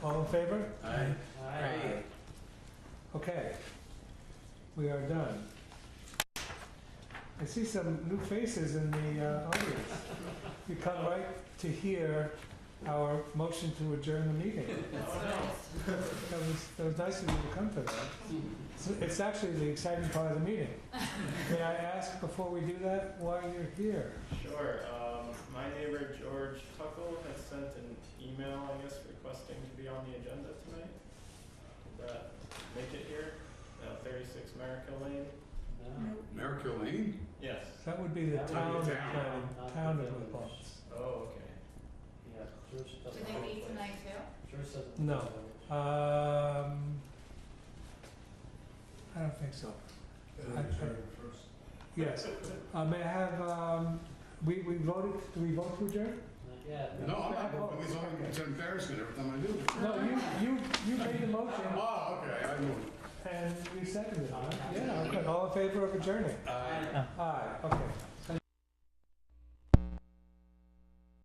All in favor? Aye. Aye. Okay. We are done. I see some new faces in the uh, audience. You come right to hear our motion to adjourn the meeting. That was, that was nice of you to come for that. So It's actually the exciting part of the meeting. May I ask before we do that, why you're here? Sure, um, my neighbor George Tuckle has sent an email, I guess, requesting to be on the agenda tonight. Did that make it here? Uh, thirty-six Merrick Lane? Merrick Lane? Yes. That would be the That would be town of, town. Canning- town of New Paltz. Oh, okay. Yeah, George Do doesn't. they meet tonight too? George doesn't. No. Um, I don't think so. I- I- Yes. Uh, may I have, um, we, we voted, do we vote to adjourn? Yeah. No, I'm not, it's only, it's an embarrassment every time I do. No, you, you, you made the motion Oh, okay, I move. Uh-huh. and you seconded it, right? Yeah. Okay, all in favor of adjourning? Aye. Aye, okay.